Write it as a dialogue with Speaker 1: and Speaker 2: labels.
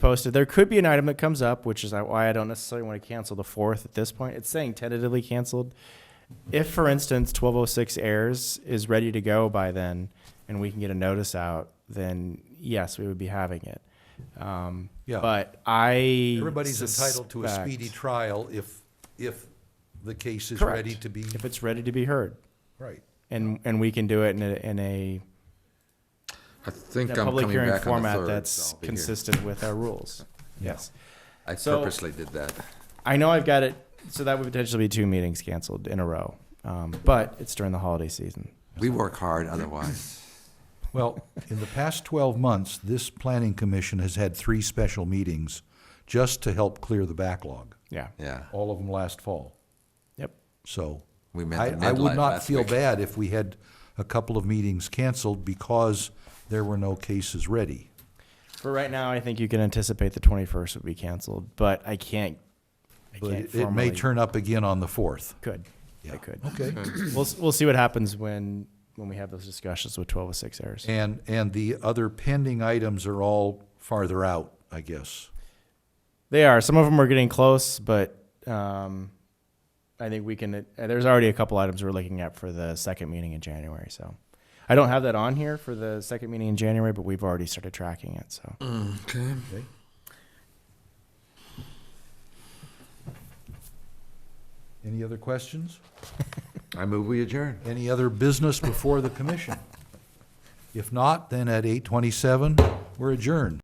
Speaker 1: posted. There could be an item that comes up, which is why I don't necessarily want to cancel the fourth at this point. It's saying tentatively canceled. If, for instance, twelve oh six airs is ready to go by then, and we can get a notice out, then yes, we would be having it. Um,
Speaker 2: Yeah.
Speaker 1: But I
Speaker 2: Everybody's entitled to a
Speaker 1: suspect-
Speaker 2: speedy trial if, if the case is
Speaker 1: Correct.
Speaker 2: ready to be,
Speaker 1: if it's ready to be heard,
Speaker 2: right.
Speaker 1: and and we can do it in a, in a,
Speaker 3: I
Speaker 1: in
Speaker 3: think
Speaker 1: a
Speaker 3: I'm
Speaker 1: public
Speaker 3: coming
Speaker 1: hearing
Speaker 3: back on the
Speaker 1: format
Speaker 3: third,
Speaker 1: that's
Speaker 3: so I'll be here.
Speaker 1: consistent with our rules. Yes.
Speaker 3: I
Speaker 1: so-
Speaker 3: purposely did that.
Speaker 1: I know I've got it, so that would potentially be two meetings canceled in a row. Um, but it's during the holiday season.
Speaker 3: We work hard otherwise.
Speaker 2: Well, in the past 12 months, this planning commission has had three special meetings just to help clear the backlog,
Speaker 1: Yeah.
Speaker 3: Yeah,
Speaker 2: all of them last fall.
Speaker 1: Yep.
Speaker 2: So
Speaker 3: we met
Speaker 2: I,
Speaker 3: the
Speaker 2: I would
Speaker 3: midline
Speaker 2: not
Speaker 3: last
Speaker 2: feel
Speaker 3: week.
Speaker 2: bad if we had a couple of meetings canceled because there were no cases ready.
Speaker 1: For right now, I think you can anticipate the 21st would be canceled, but I can't. I
Speaker 2: But
Speaker 1: can't
Speaker 2: it- it may
Speaker 1: formally-
Speaker 2: turn up again on the 4th.
Speaker 1: Could.
Speaker 2: Yeah.
Speaker 1: It could.
Speaker 2: Okay.
Speaker 1: We'll s- we'll see what happens when when we have those discussions with 1206 errors.
Speaker 2: And, and the other pending items are all farther out, I guess.
Speaker 1: They are. Some of them are getting close, but um, I think we can. Uh, there's already a couple items we're looking at for the second meeting in January. So I don't have that on here for the second meeting in January, but we've already started tracking it. So
Speaker 3: Okay.
Speaker 2: Any other questions?
Speaker 3: I move we adjourn.
Speaker 2: Any other business before the commission? If not, then at eight twenty-seven, we're adjourned.